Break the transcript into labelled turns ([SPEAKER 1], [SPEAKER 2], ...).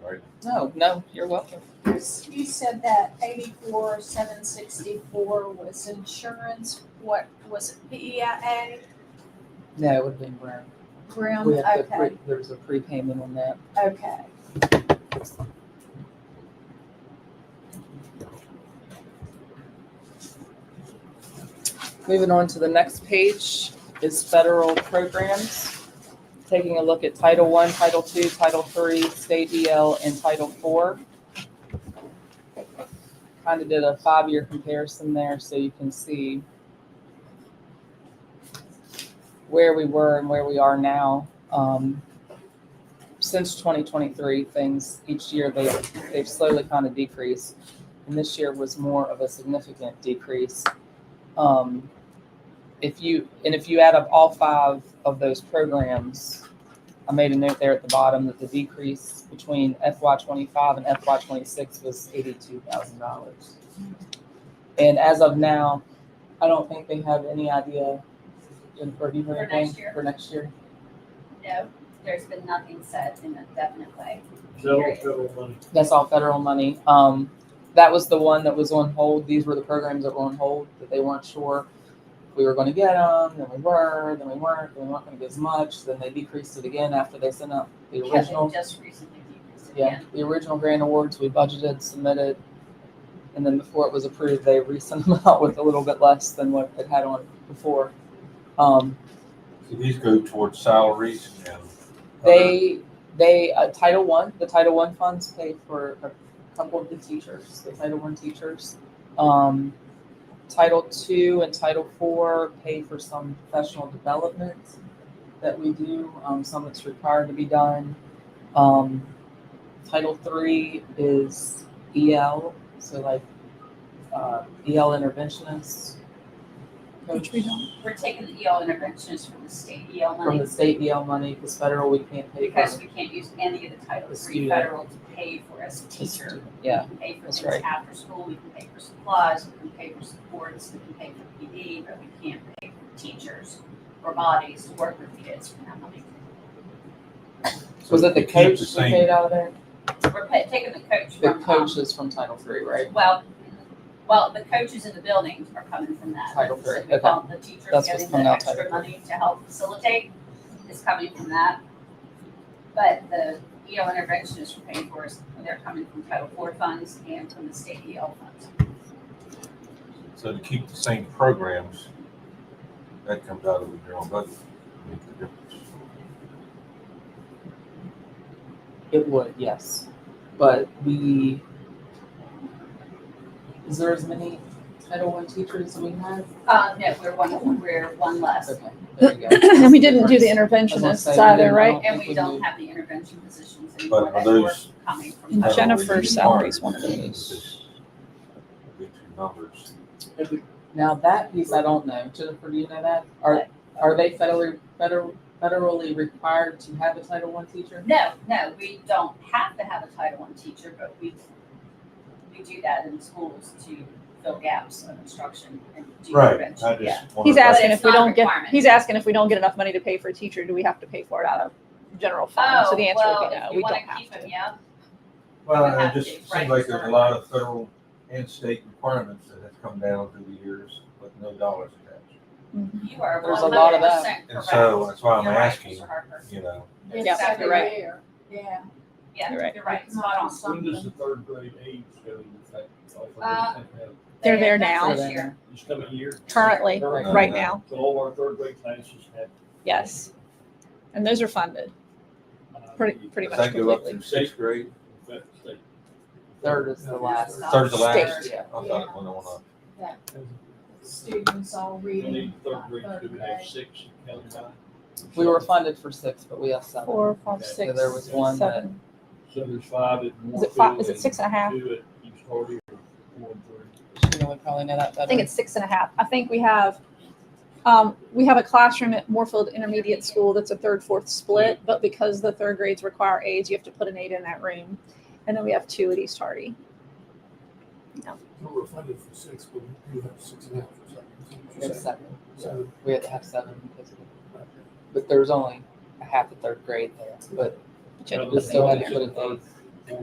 [SPEAKER 1] sorry.
[SPEAKER 2] No, no, you're welcome.
[SPEAKER 3] You said that eighty-four, seven sixty-four was insurance, what, was it E PEIA,
[SPEAKER 2] No, it would have been Brown.
[SPEAKER 3] Grim,
[SPEAKER 2] We had the
[SPEAKER 3] Um, okay,
[SPEAKER 2] pre- There was a prepayment on that.
[SPEAKER 3] okay.
[SPEAKER 2] Moving on to the next page is federal programs. Taking a look at Title One, Title Two, Title Three, State EL, and Title Four. Kind of did a five-year comparison there, so you can see where we were and where we are now. Um, Since 2023, things, each year, they, they've slowly kind of decreased. And this year was more of a significant decrease. Um, if you and if you add up all five of those programs, I made a note there at the bottom that the decrease between FY twenty-five and FY twenty-six was eighty-two thousand dollars. And as of now, I don't think they have any idea. Jennifer, do you have
[SPEAKER 4] For
[SPEAKER 2] anything
[SPEAKER 4] next year.
[SPEAKER 2] for next year?
[SPEAKER 4] No, there's been nothing said in a definite way.
[SPEAKER 1] Federal, federal money.
[SPEAKER 2] That's all federal money. Um, that was the one that was on hold. These were the programs that were on hold that they weren't sure if we were going to get them. Then we were. Then we weren't. Then we weren't going to get as much. Then they decreased it again after they sent out the
[SPEAKER 4] Yeah, they
[SPEAKER 2] original.
[SPEAKER 4] just recently decreased it
[SPEAKER 2] Yeah,
[SPEAKER 4] again.
[SPEAKER 2] the original grant awards we budgeted, submitted, and then before it was approved, they resent them out with a little bit less than what it had on before. Um,
[SPEAKER 5] So these go towards salaries and. other-
[SPEAKER 2] They, they, uh, Title One, the Title One funds pay for a couple of the teachers, the Title One teachers. Um, Title Two and Title Four pay for some professional development that we do, um, some that's required to be done. Um, Title Three is EL, so like, uh, EL interventionists. Coach
[SPEAKER 4] We're taking the EL interventions from the state EL
[SPEAKER 2] from
[SPEAKER 4] money
[SPEAKER 2] the state EL money, because federal we can't pay. for.
[SPEAKER 4] because we can't use any of the Title
[SPEAKER 2] The
[SPEAKER 4] III
[SPEAKER 2] student.
[SPEAKER 4] federal to pay for as a teacher.
[SPEAKER 2] Yeah,
[SPEAKER 4] We can pay for
[SPEAKER 2] that's
[SPEAKER 4] things
[SPEAKER 2] right.
[SPEAKER 4] after school, we can pay for supplies, we can pay for supports, we can pay for PD, but we can't pay for teachers or bodies to work with kids from that money.
[SPEAKER 5] So
[SPEAKER 2] Was it the
[SPEAKER 5] they keep
[SPEAKER 2] coach
[SPEAKER 5] the
[SPEAKER 2] we
[SPEAKER 5] same.
[SPEAKER 2] paid out of there?
[SPEAKER 4] We're pa- taking the coach
[SPEAKER 2] The
[SPEAKER 4] from. um,
[SPEAKER 2] coach is from Title Three, right?
[SPEAKER 4] Well, well, the coaches in the building are coming from that.
[SPEAKER 2] Title three,
[SPEAKER 4] So we call The teachers
[SPEAKER 2] That's what's
[SPEAKER 4] getting
[SPEAKER 2] coming
[SPEAKER 4] the
[SPEAKER 2] out, title
[SPEAKER 4] extra money to help facilitate is coming from that. But the EL interventionists we're paying for is, they're coming from Title IV funds and from the state EL funds.
[SPEAKER 5] So to keep the same programs, that comes out of the general budget. Make the difference.
[SPEAKER 2] It would, yes. But we, is there as many Title One teachers as we have?
[SPEAKER 4] Uh, no, we're one, we're one less.
[SPEAKER 2] Okay, there you go.
[SPEAKER 6] And we didn't do the
[SPEAKER 2] That's what I'm
[SPEAKER 6] interventionists
[SPEAKER 2] saying, we
[SPEAKER 6] either,
[SPEAKER 2] didn't-
[SPEAKER 6] right?
[SPEAKER 4] And we
[SPEAKER 2] we
[SPEAKER 4] don't
[SPEAKER 2] do.
[SPEAKER 4] have the intervention positions anymore
[SPEAKER 5] But are
[SPEAKER 4] that were
[SPEAKER 5] those?
[SPEAKER 4] coming from.
[SPEAKER 6] And
[SPEAKER 4] Title
[SPEAKER 6] Jennifer-
[SPEAKER 4] IV.
[SPEAKER 6] Jennifer's salary's one of
[SPEAKER 5] those. Big two numbers.
[SPEAKER 2] Now that piece I don't know. Jennifer, do you know that? Are, are they federally, federal, federally required to have a Title One teacher?
[SPEAKER 4] No, no, we don't have to have a Title I teacher, but we, we do that in schools to fill gaps of instruction and do
[SPEAKER 5] Right, I
[SPEAKER 4] prevention, yeah.
[SPEAKER 5] just. wondered
[SPEAKER 6] He's
[SPEAKER 5] about
[SPEAKER 6] asking
[SPEAKER 4] But it's
[SPEAKER 6] if we
[SPEAKER 4] not a
[SPEAKER 6] don't get,
[SPEAKER 4] requirement.
[SPEAKER 6] he's asking if we don't get enough money to pay for a teacher, do we have to pay for it out of general fund? So the answer would be no, we don't have
[SPEAKER 4] Oh, well, if you wanna keep them,
[SPEAKER 6] to.
[SPEAKER 4] yeah,
[SPEAKER 5] Well,
[SPEAKER 4] have
[SPEAKER 5] it just
[SPEAKER 4] to, right,
[SPEAKER 5] seems like there's a
[SPEAKER 4] sorry.
[SPEAKER 5] lot of federal and state requirements that have come down through the years with no dollars attached.
[SPEAKER 4] you are
[SPEAKER 2] There's
[SPEAKER 4] one
[SPEAKER 2] a lot
[SPEAKER 4] hundred
[SPEAKER 2] of that.
[SPEAKER 4] percent correct.
[SPEAKER 5] And so that's why I'm
[SPEAKER 4] You're right,
[SPEAKER 5] asking,
[SPEAKER 4] Mr. Harper.
[SPEAKER 5] you know,
[SPEAKER 3] It's
[SPEAKER 4] Yeah,
[SPEAKER 3] every
[SPEAKER 4] you're right.
[SPEAKER 3] year. Yeah.
[SPEAKER 4] Yeah,
[SPEAKER 6] You're right.
[SPEAKER 4] you're right, spot on.
[SPEAKER 1] When does
[SPEAKER 3] Something.
[SPEAKER 1] the third grade age go into effect? Off of the
[SPEAKER 4] Uh,
[SPEAKER 1] tenth grade?
[SPEAKER 6] They're there
[SPEAKER 4] That's
[SPEAKER 6] now.
[SPEAKER 4] This year,
[SPEAKER 1] This coming year?
[SPEAKER 6] Currently,
[SPEAKER 1] Currently.
[SPEAKER 6] right now,
[SPEAKER 1] So all our third grade classes have.
[SPEAKER 6] yes. And those are funded,
[SPEAKER 1] uh,
[SPEAKER 6] pretty, pretty
[SPEAKER 5] does
[SPEAKER 6] much
[SPEAKER 5] that go up
[SPEAKER 6] completely.
[SPEAKER 5] to sixth grade?
[SPEAKER 1] that state.
[SPEAKER 2] Third is the last.
[SPEAKER 5] Third's the last?
[SPEAKER 2] State, yeah.
[SPEAKER 5] I thought it went on up.
[SPEAKER 3] Students all
[SPEAKER 1] We
[SPEAKER 3] reading.
[SPEAKER 1] need third
[SPEAKER 3] uh,
[SPEAKER 1] grade
[SPEAKER 3] third
[SPEAKER 1] to
[SPEAKER 3] grade.
[SPEAKER 1] have six county-wide.
[SPEAKER 2] We were funded for six, but we have seven.
[SPEAKER 6] Four, five,
[SPEAKER 1] So
[SPEAKER 6] six,
[SPEAKER 2] there was one that-
[SPEAKER 6] seven.
[SPEAKER 1] So there's five at
[SPEAKER 6] Is it
[SPEAKER 1] Moorefield
[SPEAKER 6] five, is it
[SPEAKER 1] and
[SPEAKER 6] six and a half?
[SPEAKER 1] Two at East Hardy or four and three.
[SPEAKER 2] You would probably know that better.
[SPEAKER 6] I think it's six and a half. I think we have, um, we have a classroom at Moorfield Intermediate School that's a third, fourth split, but because the third grades require aides, you have to put an aide in that room. And then we have two at East Hardy.
[SPEAKER 7] We were funded for six, but we do have six and a half or something.
[SPEAKER 2] We have seven.
[SPEAKER 7] So,
[SPEAKER 2] We had to have seven because of it. But there was only a half a third grade there, but
[SPEAKER 6] which I
[SPEAKER 2] we
[SPEAKER 6] don't
[SPEAKER 2] still had
[SPEAKER 6] think
[SPEAKER 2] to
[SPEAKER 6] is
[SPEAKER 2] put an eighth